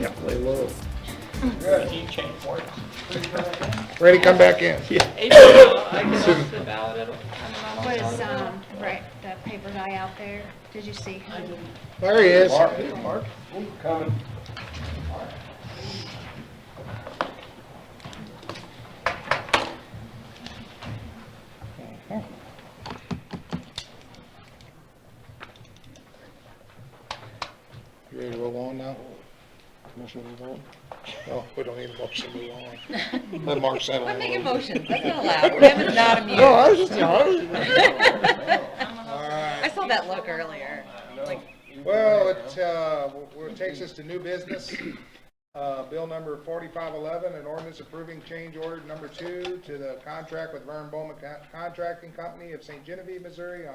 gotta play low. You change words. Ready, come back in. April, I get off the ballot at all. I'm not on the Was, ballot. um, right, that paper guy out there, did you see? him? There he is. Mark, coming. You ready to roll on now? Commissioner Revolt? No, Oh, we don't need a motion to roll on. Let Mark settle. I'm making a little. motions, that's not allowed, Kevin's not No, I immune. was just, I was All I right. saw that look earlier. Well, it, uh, well, it takes us to new business. Uh, bill number forty-five eleven, an ordinance approving change order number two to the contract with Vern Bowman Con- Contracting Company of St. Genevieve, Missouri on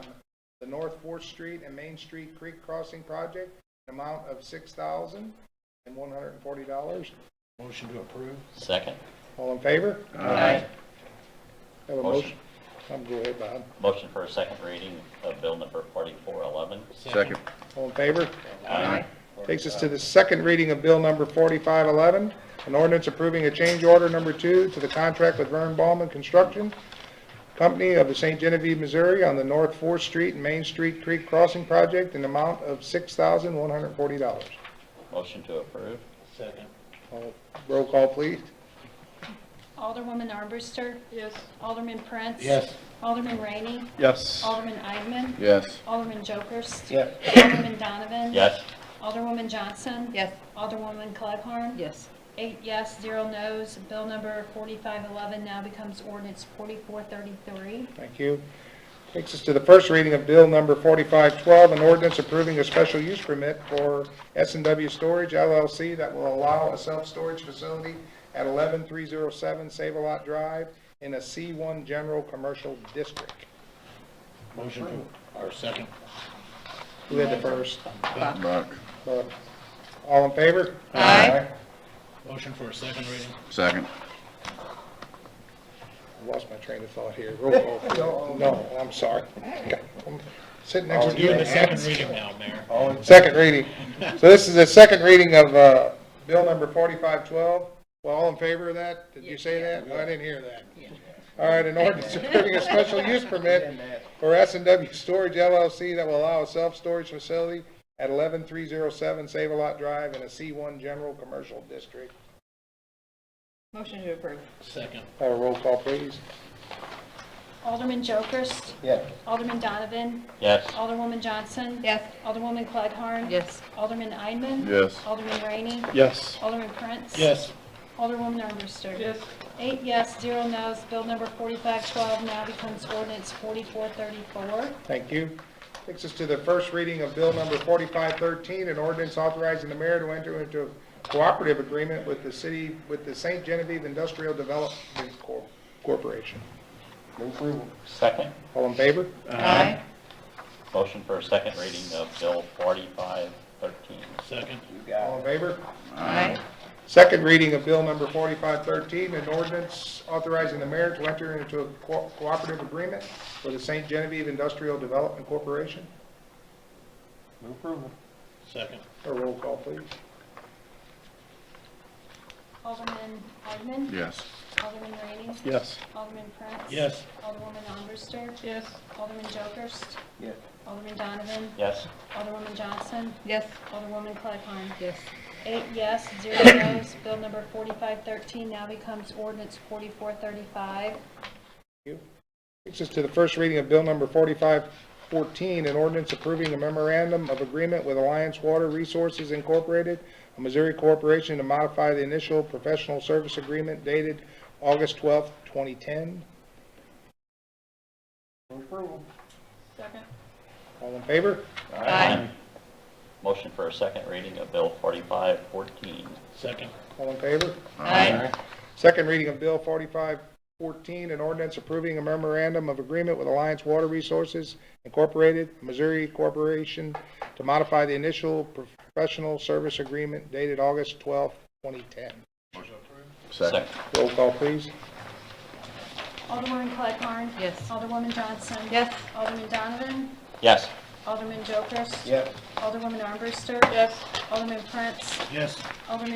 the North Fourth Street and Main Street Creek Crossing Project, an amount of six thousand and one hundred and forty dollars. Motion to approve. Second. All in favor? Aye. Have a motion? Motion. I'm go ahead, Bob. Motion for a second reading of bill number 4411. Second. All in favor? Aye. Takes us to the second reading of Bill Number 4511, an ordinance approving a change order number two to the contract with Vern Ballman Construction Company of the St. Genevieve, Missouri on the North Fourth Street and Main Street Creek Crossing Project in the amount of $6,140. Motion to approve. Second. All- Roll call, please. Alderwoman Armbruster. Yes. Alderman Prince. Yes. Alderman Rainey. Yes. Alderman Eidman. Yes. Alderman Jokers. Yes. Alderman Donovan. Yes. Alderwoman Johnson. Yes. Alderwoman Clegg-Harn. Yes. Eight yes, zero no's. Bill number 4511 now becomes ordinance 4433. Thank you. Takes us to the first reading of Bill Number 4512, an ordinance approving a special use permit for s and W Storage LLC that will allow a self-storage facility at 11307 Save-A-Lot Drive in a C1 General Commercial District. Motion to, or second. Who had the first? Buck. Uh, All in favor? Aye. Motion for a second reading. Second. I lost my train of thought here. Roll call. No, I'm sorry. I'm Sitting next to you. Doing the second reading now, Mayor. Second reading. So this is the second reading of uh, Bill number 4512. Well, all in favor of that? Did you say that? Well, I didn't hear that. All right, an ordinance approving a special use permit for s and W Storage LLC that will allow a self-storage facility at 11307 Save-A-Lot Drive in a C1 General Commercial District. Motion to approve. Second. Have a roll call, please. Alderman Jokers. Yeah. Alderman Donovan. Yes. Alderwoman Johnson. Yes. Alderwoman Clegg-Harn. Yes. Alderman Eidman. Yes. Alderman Rainey. Yes. Alderman Prince. Yes. Alderwoman Armbruster. Yes. Eight yes, zero no's. Bill number 4512 now becomes ordinance 4434. Thank you. Takes us to the first reading of Bill Number 4513, an ordinance authorizing the mayor to enter into a cooperative agreement with the city, with the St. Genevieve Industrial Development Cor- Corporation. Move approval. Second. All in favor? Aye. Motion for a second reading of bill 4513. Second. All in favor? Aye. Second reading of Bill Number 4513, an ordinance authorizing the mayor to enter into a co- cooperative agreement with the St. Genevieve Industrial Development Corporation. Second. A roll call, please. Alderman Eidman. Yes. Alderman Rainey. Yes. Alderman Prince. Yes. Alderwoman Armbruster. Yes. Alderman Jokers. Yes. Alderman Donovan. Yes. Alderwoman Johnson. Yes. Alderwoman Clegg-Harn. Yes. Eight yes, zero no's. Bill number 4513 now becomes ordinance 4435. Takes us to the first reading of Bill Number 4514, an ordinance approving a memorandum of agreement with Alliance Water Resources Incorporated, a Missouri corporation to modify the initial professional service agreement dated August 12, 2010. Second. All in favor? Aye. Motion for a second reading of bill 4514. Second. All in favor? Aye. Second reading of Bill 4514, an ordinance approving a memorandum of agreement with Alliance Water Resources Incorporated, Missouri Corporation, to modify the initial professional service agreement dated August 12, 2010. Second. Roll call, please. Alderwoman Clegg-Harn. Yes. Alderwoman Johnson. Yes. Alderman Donovan. Yes. Alderman Jokers. Yes. Alderwoman Armbruster. Yes. Alderman Prince. Yes. Alderman